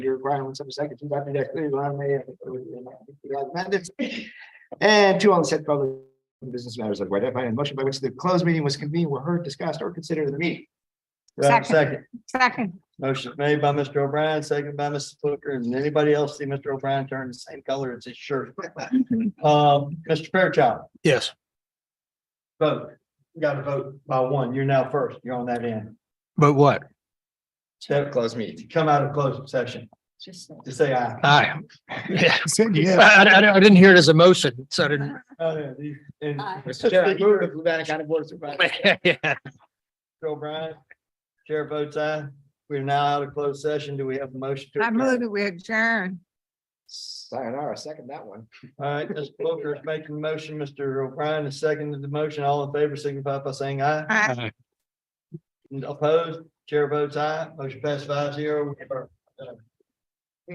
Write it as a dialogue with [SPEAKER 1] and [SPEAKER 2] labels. [SPEAKER 1] requirements of section two amended. And two on the said public business matters of where defined in motion by which the closed meeting was convened were heard, discussed, or considered in the meeting.
[SPEAKER 2] Do I have a
[SPEAKER 3] Second.
[SPEAKER 2] Second,
[SPEAKER 3] Second,
[SPEAKER 2] motion made by Mr. O'Brien, second by Mrs. Booker. And anybody else see Mr. O'Brien turn the same color as his shirt? Um, Mr. Fairchild,
[SPEAKER 4] Yes.
[SPEAKER 2] vote. You got to vote by one. You're now first. You're on that end.
[SPEAKER 4] But what?
[SPEAKER 2] Step,
[SPEAKER 1] Close meeting.
[SPEAKER 2] come out of closed session.
[SPEAKER 3] just,
[SPEAKER 2] Just say aye.
[SPEAKER 4] Aye. Yeah.
[SPEAKER 1] Said
[SPEAKER 4] I, I- I didn't hear it as a motion, so I didn't.
[SPEAKER 2] Oh, yeah, the- and
[SPEAKER 3] Aye.
[SPEAKER 1] Mr. Chair, I move the Nevada County Board of Supervisors.
[SPEAKER 4] Yeah.
[SPEAKER 2] Mr. O'Brien, chair votes aye. We're now out of closed session. Do we have a motion? to
[SPEAKER 3] I
[SPEAKER 2] adjourn?
[SPEAKER 3] move that we adjourn.
[SPEAKER 1] Sayonara, second that one.
[SPEAKER 2] All right, Mr. Booker is making the motion. Mr. O'Brien is seconded the motion. All in favor, signify by saying aye.
[SPEAKER 3] Aye.
[SPEAKER 2] Opposed, chair votes aye, motion passed five zero. We are, uh,